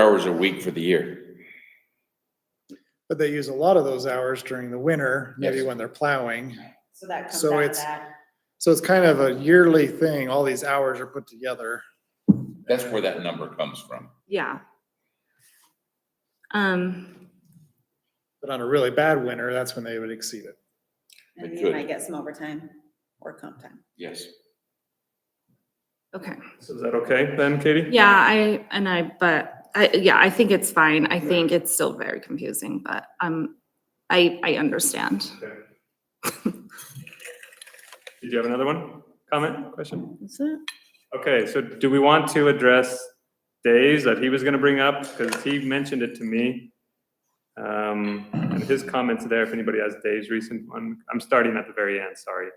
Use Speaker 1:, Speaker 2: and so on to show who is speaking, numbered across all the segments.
Speaker 1: hours a week for the year.
Speaker 2: But they use a lot of those hours during the winter, maybe
Speaker 1: Yes.
Speaker 2: when they're plowing.
Speaker 3: So that comes
Speaker 2: So
Speaker 3: out of
Speaker 2: it's-
Speaker 3: that.
Speaker 2: So it's kind of a yearly thing. All these hours are put together.
Speaker 1: That's where that number comes from.
Speaker 4: Yeah. Um,
Speaker 2: But on a really bad winter, that's when they would exceed it.
Speaker 3: And
Speaker 1: It
Speaker 3: you
Speaker 1: could.
Speaker 3: might get some overtime or comp time.
Speaker 1: Yes.
Speaker 4: okay.
Speaker 5: So is that okay then, Katie?
Speaker 4: Yeah, I, and I, but I, yeah, I think it's fine. I think it's still very confusing, but um, I, I understand.
Speaker 5: Did you have another one? Comment, question?
Speaker 4: Is it?
Speaker 5: Okay, so do we want to address days that he was gonna bring up? Because he mentioned it to me. Um, and his comments there, if anybody has days recent one, I'm starting at the very end, sorry.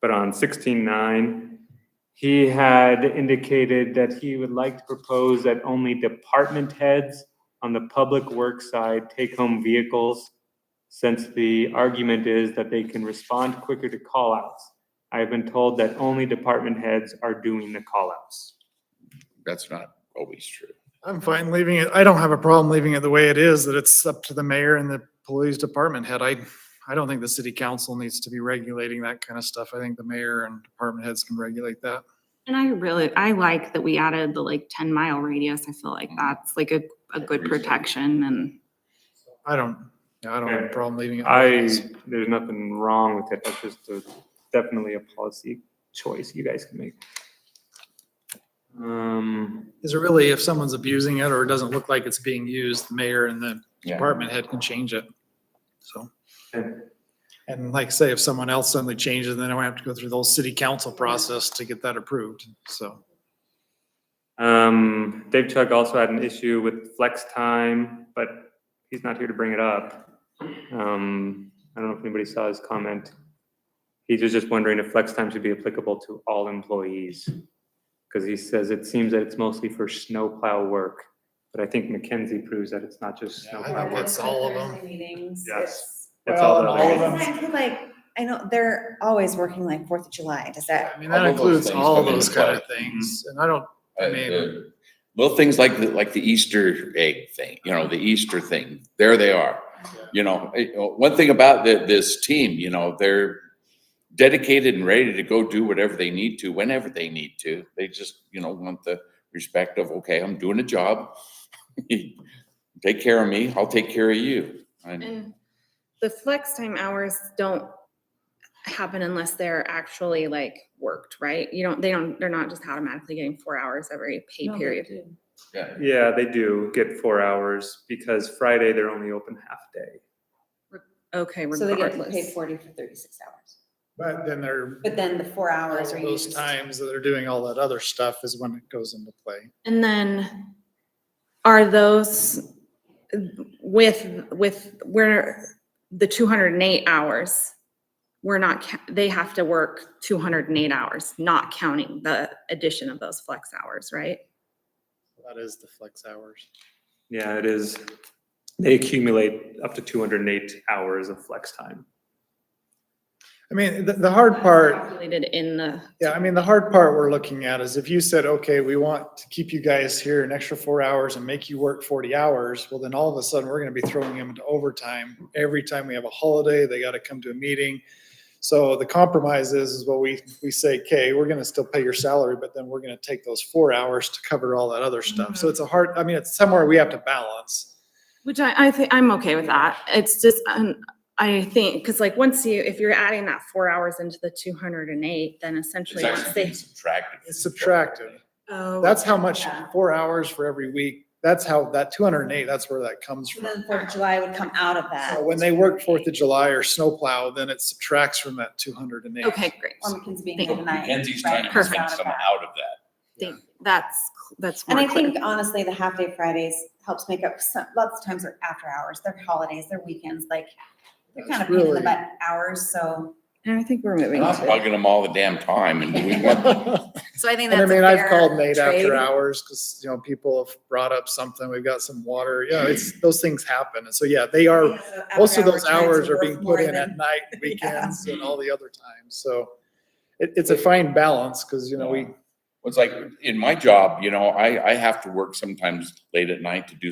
Speaker 5: But on sixteen nine, he had indicated that he would like to propose that only department heads on the public work side take home vehicles. Since the argument is that they can respond quicker to call outs. I have been told that only department heads are doing the callouts.
Speaker 1: That's not always true.
Speaker 2: I'm fine leaving it. I don't have a problem leaving it the way it is, that it's up to the mayor and the police department head. I, I don't think the city council needs to be regulating that kind of stuff. I think the mayor and department heads can regulate that.
Speaker 4: And I really, I like that we added the like ten mile radius. I feel like
Speaker 1: Mhm.
Speaker 4: that's like a, a good
Speaker 1: Agreed.
Speaker 4: protection and
Speaker 2: I don't, yeah, I don't have a
Speaker 5: Okay.
Speaker 2: problem leaving it. the way it
Speaker 5: I,
Speaker 2: is.
Speaker 5: there's nothing wrong with it, that's just a- definitely a policy choice you guys can make. Um,
Speaker 2: Is it really if someone's abusing it or it doesn't look like it's being used, the mayor and the
Speaker 1: Yeah.
Speaker 2: department head can change it. So,
Speaker 5: Okay.
Speaker 2: and like I say, if someone else suddenly changes, then I would have to go through the whole city council process to get that approved. So
Speaker 5: um, Dave Chuck also had an issue with flex time, but he's not here to bring it up. Um, I don't know if anybody saw his comment. He was just wondering if flex time should be applicable to all employees. Because he says it seems that it's mostly for snowplow work, but I think McKenzie proves that it's not just
Speaker 2: Yeah, I
Speaker 5: snowplow
Speaker 2: think
Speaker 5: work.
Speaker 2: that's all of them.
Speaker 3: Thursday Meetings.
Speaker 5: Yes.
Speaker 2: Well,
Speaker 5: It's all
Speaker 2: and
Speaker 5: the
Speaker 2: all of
Speaker 5: other
Speaker 2: them.
Speaker 5: guys.
Speaker 3: I feel like, I know, they're always working like Fourth of July, does that?
Speaker 2: I mean,
Speaker 1: All
Speaker 2: that
Speaker 1: of those
Speaker 2: includes
Speaker 1: things
Speaker 2: all
Speaker 1: come into
Speaker 2: those kind of
Speaker 1: play.
Speaker 2: things. And I don't, I
Speaker 1: Uh,
Speaker 2: mean-
Speaker 1: the Little things like, the like the Easter egg thing, you know, the Easter thing, there they are. You know, eh, oh, one thing about the, this team, you know, they're dedicated and ready to go do whatever they need to, whenever they need to. They just, you know, want the respect of, okay, I'm doing a job. Take care of me, I'll take care of you. And
Speaker 4: And the flex time hours don't happen unless they're actually like worked, right? You don't, they don't, they're not just automatically getting four hours every pay period.
Speaker 1: yeah,
Speaker 5: Yeah, they do get four hours because Friday they're only open half day.
Speaker 4: Okay,
Speaker 3: So they get paid
Speaker 4: regardless.
Speaker 3: forty for thirty-six hours,
Speaker 2: but then there,
Speaker 3: but then the four hours are
Speaker 2: those
Speaker 3: used.
Speaker 2: times that they're doing all that other stuff is when it goes into play.
Speaker 4: And then are those with, with, where the two hundred and eight hours? We're not, ca- they have to work two hundred and eight hours, not counting the addition of those flex hours, right?
Speaker 2: That is the flex hours.
Speaker 5: Yeah, it is. They accumulate up to two hundred and eight hours of flex time.
Speaker 2: I mean, the, the hard part
Speaker 4: Calculated in the.
Speaker 2: Yeah, I mean, the hard part we're looking at is if you said, okay, we want to keep you guys here an extra four hours and make you work forty hours, well, then all of a sudden, we're gonna be throwing them into overtime. Every time we have a holiday, they gotta come to a meeting. So the compromise is, is what we, we say, okay, we're gonna still pay your salary, but then we're gonna take those four hours to cover all that other stuff.
Speaker 3: Mm-hmm.
Speaker 2: So it's a hard, I mean, it's somewhere we have to balance.
Speaker 4: Which I, I think, I'm okay with that. It's just, um, I think, because like, once you, if you're adding that four hours into the two hundred and eight, then
Speaker 1: it's
Speaker 4: essentially, once
Speaker 1: actually
Speaker 4: they.
Speaker 1: subtracted.
Speaker 2: It's subtractive.
Speaker 4: Oh,
Speaker 2: That's how much,
Speaker 3: Yeah.
Speaker 2: four hours for every week. That's how, that two hundred and eight, that's where that comes
Speaker 3: So
Speaker 2: from.
Speaker 3: Then Fourth of July would come out of that.
Speaker 2: So when they work Fourth of July or snowplow, then it subtracts from that two hundred and eight.
Speaker 4: Okay, great.
Speaker 3: Or McKinsey being
Speaker 4: Thank you.
Speaker 3: overnight.
Speaker 1: Mackenzie's
Speaker 3: right,
Speaker 1: trying to
Speaker 3: comes
Speaker 1: make
Speaker 3: out of
Speaker 1: some
Speaker 3: that.
Speaker 1: out of that.
Speaker 4: Think, that's, that's
Speaker 3: And
Speaker 4: more
Speaker 3: I
Speaker 4: clear.
Speaker 3: think honestly, the half day Fridays helps make up some, lots of times they're after hours, they're holidays, they're weekends, like they're kind
Speaker 2: That's
Speaker 3: of pain in the
Speaker 2: really-
Speaker 3: butt hours, so.
Speaker 4: And I think we're moving
Speaker 1: And I'm
Speaker 4: to.
Speaker 1: bugging them all the damn time and we want,
Speaker 2: And
Speaker 4: So I think
Speaker 2: I
Speaker 4: that's a
Speaker 2: mean, I've called
Speaker 4: fair
Speaker 2: Nate after
Speaker 4: trade.
Speaker 2: hours because, you know, people have brought up something. We've got some water. Yeah, it's, those things happen. And so, yeah, they are, most of those hours are being put in at night, weekends and all the other times. So it, it's a fine balance because, you know, we,
Speaker 1: It's like, in my job, you know, I, I have to work sometimes late at night to do